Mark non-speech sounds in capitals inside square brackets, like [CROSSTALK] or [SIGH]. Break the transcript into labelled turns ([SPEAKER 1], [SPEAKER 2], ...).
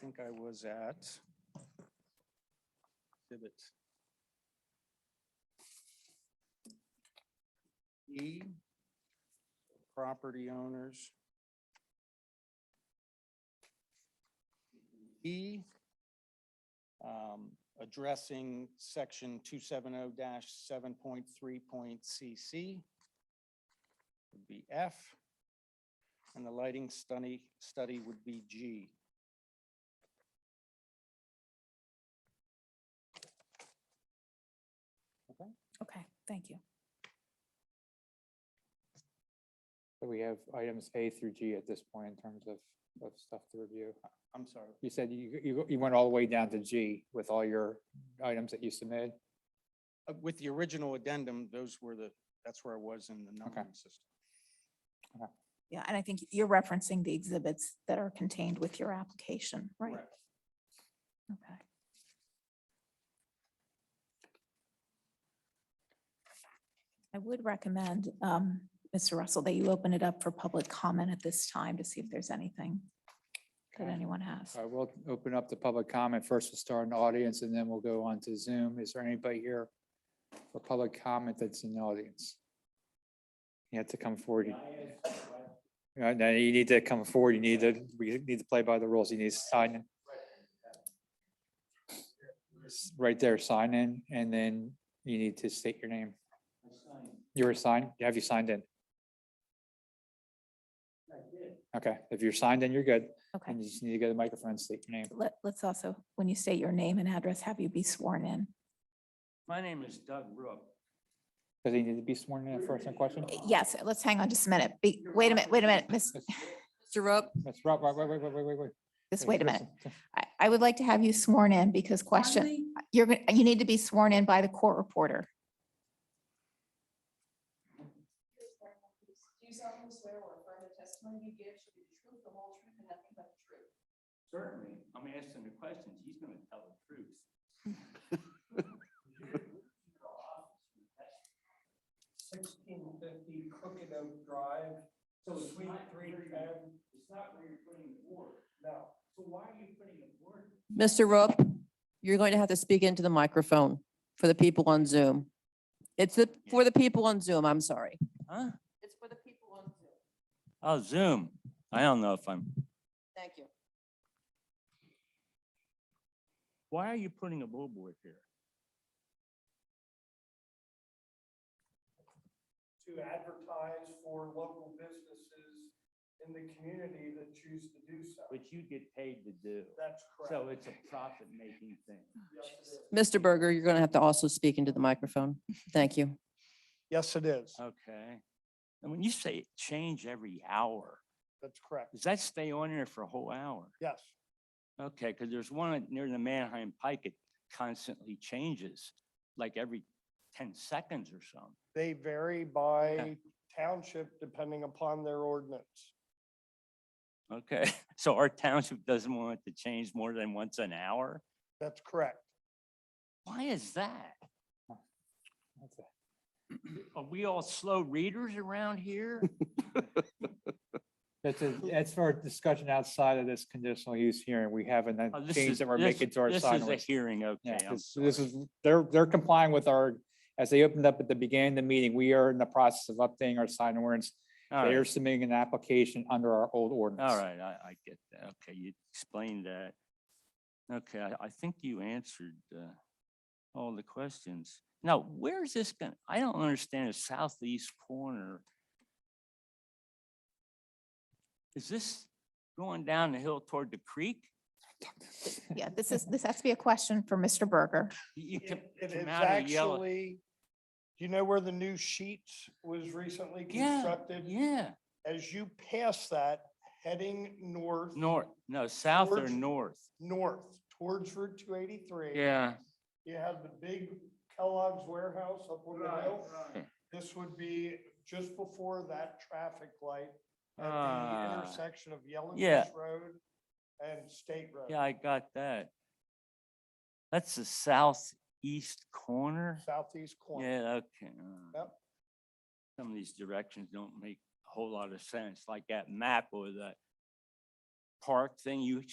[SPEAKER 1] think I was at. Exhibit E, property owners. E, um, addressing section two seven oh seven point three point CC would be F. And the lighting study, study would be G.
[SPEAKER 2] Okay, thank you.
[SPEAKER 3] So we have items A through G at this point in terms of, of stuff to review.
[SPEAKER 1] I'm sorry.
[SPEAKER 3] You said you, you, you went all the way down to G with all your items that you submitted?
[SPEAKER 1] Uh, With the original addendum, those were the, that's where I was in the numbering system.
[SPEAKER 2] Yeah, and I think you're referencing the exhibits that are contained with your application, right?
[SPEAKER 1] Correct.
[SPEAKER 2] Okay. I would recommend, um, Mr. Russell, that you open it up for public comment at this time to see if there's anything that
[SPEAKER 3] Okay.
[SPEAKER 2] anyone has.
[SPEAKER 3] I will open up the public comment. First, we'll start in the audience and then we'll go on to Zoom. Is there anybody here for public comment that's in the audience? You have to come forward. Uh, No, you need to come forward. You need to, we need to play by the rules. You need to sign in. S- Right there, sign in, and then you need to state your name. You were signed? Have you signed in? Okay, if you're signed in, you're good.
[SPEAKER 2] Okay,
[SPEAKER 3] And you just need to get a microphone, and state your name.
[SPEAKER 2] let, let's also, when you state your name and address, have you be sworn in?
[SPEAKER 4] My name is Doug Rook.
[SPEAKER 3] Does he need to be sworn in at first in question?
[SPEAKER 2] Yes, let's hang on just a minute. Be- Wait a minute, wait a minute, miss,
[SPEAKER 5] Mr. Rook,
[SPEAKER 3] That's right, right, wait, wait, wait, wait, wait, wait.
[SPEAKER 2] just wait a minute.
[SPEAKER 3] Just-
[SPEAKER 2] I, I would like to have you sworn in because question, you're, gonna- you need to be sworn in by the court reporter.
[SPEAKER 6] Do you solemnly swear or affirm the testimony you give should be the truth, the whole truth, and nothing but the truth?
[SPEAKER 4] Certainly, I'm asking the questions. He's gonna tell the [LAUGHS] truth.
[SPEAKER 7] sixteen fifty Crooked Oak Drive. So
[SPEAKER 4] it's
[SPEAKER 7] suite
[SPEAKER 4] not
[SPEAKER 7] three
[SPEAKER 4] where you-
[SPEAKER 7] ten,
[SPEAKER 4] It's not where you're putting the board.
[SPEAKER 7] no.
[SPEAKER 4] So why are you putting a board?
[SPEAKER 5] Mr. Rook, you're going to have to speak into the microphone for the people on Zoom. It's the, for the people on Zoom, I'm sorry.
[SPEAKER 4] Huh?
[SPEAKER 5] It's for the people on Zoom.
[SPEAKER 4] Oh, Zoom. I don't know if I'm.
[SPEAKER 5] Thank you.
[SPEAKER 4] Why are you putting a billboard here?
[SPEAKER 7] To advertise for local businesses in the community that choose to do so.
[SPEAKER 4] Which you get paid to do.
[SPEAKER 7] That's
[SPEAKER 4] So
[SPEAKER 7] correct.
[SPEAKER 4] it's a profit-making thing.
[SPEAKER 7] Yes, it is.
[SPEAKER 5] Mr. Berger, you're going to have to also speak into the microphone. Thank you.
[SPEAKER 1] Yes, it is.
[SPEAKER 4] Okay. And when you say change every hour,
[SPEAKER 1] That's correct.
[SPEAKER 4] does that stay on there for a whole hour?
[SPEAKER 1] Yes.
[SPEAKER 4] Okay, because there's one near the Manheim Pike, it constantly changes, like every ten seconds or something.
[SPEAKER 7] They vary by township depending upon their ordinance.
[SPEAKER 4] Okay, [LAUGHS] so our township doesn't want it to change more than once an hour?
[SPEAKER 7] That's correct.
[SPEAKER 4] Why is that?
[SPEAKER 3] That's it.
[SPEAKER 4] [CLEARS THROAT] Are we all slow readers around here? [LAUGHS]
[SPEAKER 3] That's, a- that's for discussion outside of this conditional use hearing. We haven't
[SPEAKER 4] Oh,
[SPEAKER 3] then
[SPEAKER 4] this
[SPEAKER 3] changed
[SPEAKER 4] is-
[SPEAKER 3] that we're
[SPEAKER 4] this-
[SPEAKER 3] making to our sign.
[SPEAKER 4] This is a
[SPEAKER 3] ordinance.
[SPEAKER 4] hearing, okay.
[SPEAKER 3] Yeah,
[SPEAKER 4] I'm
[SPEAKER 3] this this
[SPEAKER 4] sorry.
[SPEAKER 3] is, they're, they're complying with our, as they opened up at the beginning of the meeting, we are in the process of updating our sign ordinance.
[SPEAKER 4] All
[SPEAKER 3] They are
[SPEAKER 4] right,
[SPEAKER 3] submitting an application under our old ordinance.
[SPEAKER 4] all right, I, I get that. Okay, you explained that. Okay, I, I think you answered, uh, all the questions. Now, where is this going? I don't understand the southeast corner. Is this going down the hill toward the creek?
[SPEAKER 2] Yeah, this is, this has to be a question for Mr. Berger.
[SPEAKER 4] You
[SPEAKER 7] It
[SPEAKER 4] can
[SPEAKER 7] it is
[SPEAKER 4] come out of the yellow.
[SPEAKER 7] actually, do you know where the new sheets was recently
[SPEAKER 4] Yeah,
[SPEAKER 7] constructed?
[SPEAKER 4] yeah,
[SPEAKER 7] As you pass that, heading north.
[SPEAKER 4] north, no, south or
[SPEAKER 7] Towards-
[SPEAKER 4] north.
[SPEAKER 7] north towards Route two eighty-three.
[SPEAKER 4] Yeah.
[SPEAKER 7] You have the big Kellogg's warehouse up on the hill. This would be just before that traffic light at the
[SPEAKER 4] Ah.
[SPEAKER 7] intersection of
[SPEAKER 4] Yeah.
[SPEAKER 7] Yellowfish Road and State Road.
[SPEAKER 4] Yeah, I got that. That's the southeast corner?
[SPEAKER 7] Southeast corner.
[SPEAKER 4] Yeah, okay. uh,
[SPEAKER 7] Yep.
[SPEAKER 4] Some of these directions don't make a whole lot of sense, like that map or that park thing you